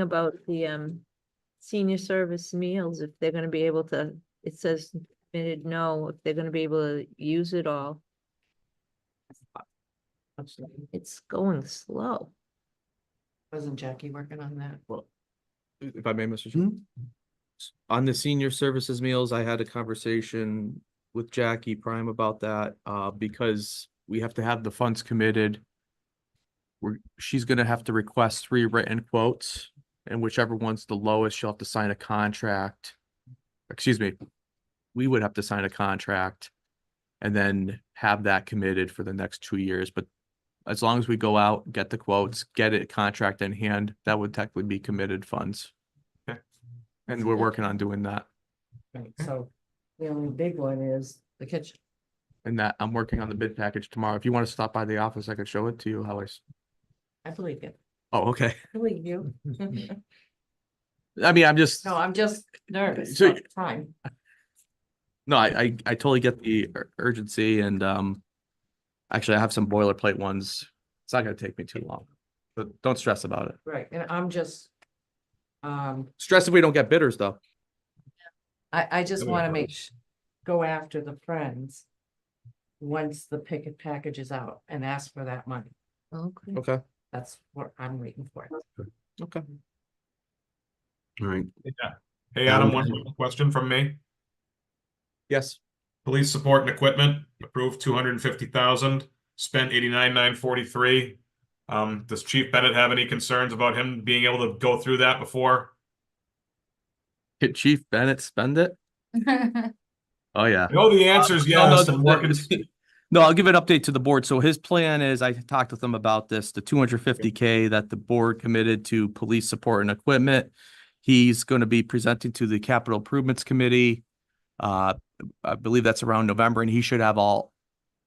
about the um senior service meals, if they're gonna be able to, it says committed no, if they're gonna be able to use it all. It's going slow. Wasn't Jackie working on that? if I may, Mr. Chair. S- On the senior services meals, I had a conversation with Jackie Prime about that, uh, because we have to have the funds committed. We're, she's gonna have to request three written quotes, and whichever one's the lowest, she'll have to sign a contract. Excuse me, we would have to sign a contract and then have that committed for the next two years, but as long as we go out, get the quotes, get it contract in hand, that would technically be committed funds. And we're working on doing that. Right, so the only big one is the kitchen. And that, I'm working on the bid package tomorrow. If you want to stop by the office, I could show it to you how I, s- I believe it. oh, okay. I Believe you. I mean, I'm just, No, I'm just nervous So- all the time. no, I, I, I totally get the ur- urgency and, um, actually, I have some boilerplate ones. It's not gonna take me too long, but don't stress about it. Right, and I'm just. Um, Stress if we don't get bidders though. I, I just That'd be wanna fun. make, sh- go after the friends. Once the picket package is out and ask for that money. Okay. Okay, That's what I'm waiting for. okay. All right, Yeah. Hey, Adam, Um, one quick question from me. Yes, Police support and equipment, approved two hundred and fifty thousand, spent eighty-nine, nine forty-three. Um, does Chief Bennett have any concerns about him being able to go through that before? Did Chief Bennett spend it? Oh, yeah. I know the answer is No, no, yes, the- I'm working, the- No, I'll give an update to the board. So his plan is, I talked with him about this, the two hundred fifty K that the board committed to police support and equipment. He's going to be presenting to the Capital Improvements Committee. Uh, I believe that's around November and he should have all,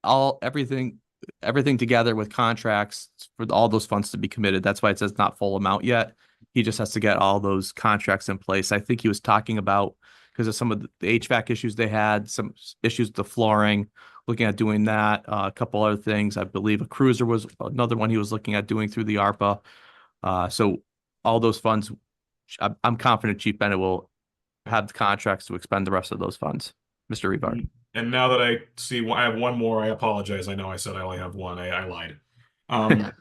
all, everything, everything together with contracts for all those funds to be committed. That's why it says not full amount yet. He just has to get all those contracts in place. I think he was talking about because of some of the HVAC issues they had, some s- issues with the flooring, looking at doing that, uh, a couple other things. I believe a cruiser was another one he was looking at doing through the ARPA. Uh, so all those funds, sh- I'm, I'm confident Chief Bennett will have the contracts to expend the rest of those funds. Mr. Rebar. Mm. and now that I see, one- I have one more, I apologize, I know I said I only have one, I, I lied. Um,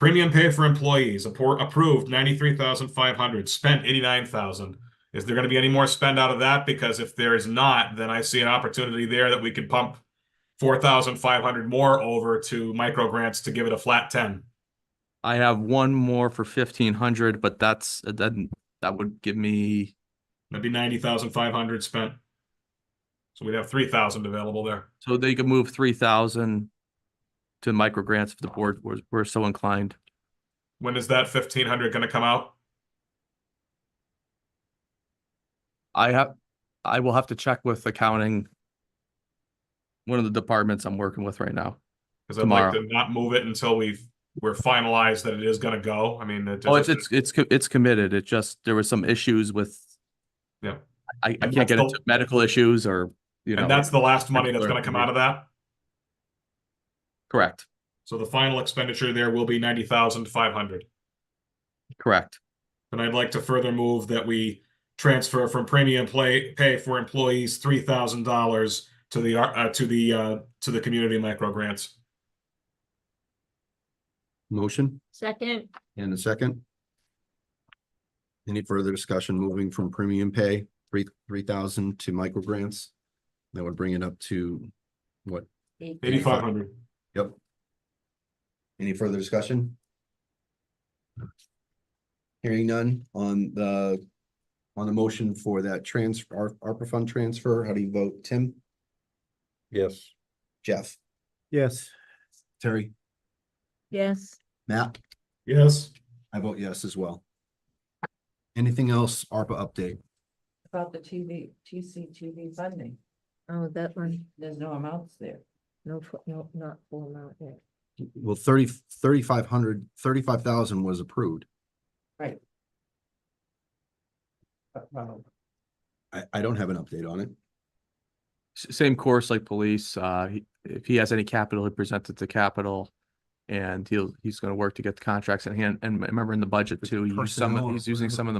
premium pay for employees, appro- approved ninety-three thousand five hundred, spent eighty-nine thousand. Is there gonna be any more spend out of that? Because if there is not, then I see an opportunity there that we could pump four thousand five hundred more over to micro grants to give it a flat ten. I have one more for fifteen hundred, but that's, then that would give me, That'd be ninety thousand five hundred spent. So we'd have three thousand available there. so they could move three thousand to micro grants if the board was, were so inclined. When is that fifteen hundred gonna come out? I have, I will have to check with accounting. One of the departments I'm working with right now. Cause I'd like Tomorrow. to not move it until we've, we're finalized that it is gonna go. I mean. it- Oh, it's, it's, it's, co- it's committed. It just, there were some issues with. Yeah. I, I And can't get that's the- into medical issues or, you And know, that's the last money that's gonna Particular come out of that. correct, So the final expenditure there will be ninety thousand five hundred. correct. And I'd like to further move that we transfer from premium play, pay for employees, three thousand dollars to the, uh, to the, uh, to the community micro grants. motion Second, and a second. Any further discussion moving from premium pay, three, three thousand to micro grants? That would bring it up to what? Eighty-five hundred. Yep. Any further discussion? Hearing none on the, on the motion for that transfer, ARPA fund transfer, how do you vote? Tim? Yes. Jeff? Yes. Terry? yes. Matt? Yes. I vote yes as well. Anything else, ARPA update? About the TV, TCTV funding, Oh, that one, there's no amounts there. no, fu- no, not full amount yet. Well, thirty, thirty-five hundred, thirty-five thousand was approved. But, well, I, I don't have an update on it. S- Same course like police, uh, he- if he has any capital, he presents it to capital. And he'll, he's gonna work to get the contracts in hand. And remember in the budget too, he used some, of- Personnel. he's using some of the